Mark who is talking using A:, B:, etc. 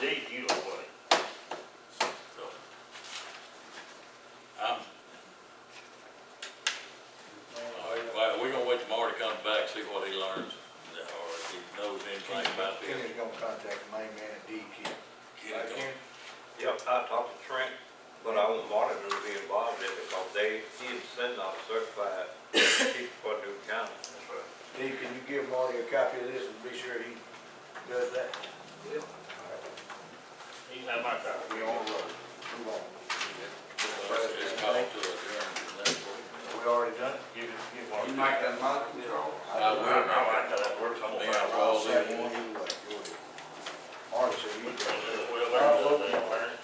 A: deed, you owe money.
B: So, I'm, all right, well, we gonna wait tomorrow to come back, see what he learns, or if he knows anything about this.
C: Kenny's gonna contact the main man at DQ.
B: Get it going.
D: Yep, I talked to Trent, but I want Martin to be involved in it because they, he is sending out certified people for New County.
C: Steve, can you give Marty a copy of this and be sure he does that?
D: Yep.
A: He's not my guy.
C: We on the road. Move on.
B: It's- It's called to adjourn to next week.
C: We already done it?
A: Give it, give one.
E: You make that motion, Charles?
B: Uh,
A: I will, I know that works.
B: I'll
A: I'm
B: be
A: gonna
B: out
A: roll.
B: all
C: I'll
B: day.
C: second one either way. Go ahead. Marty said he.
A: Well, there's a thing, man.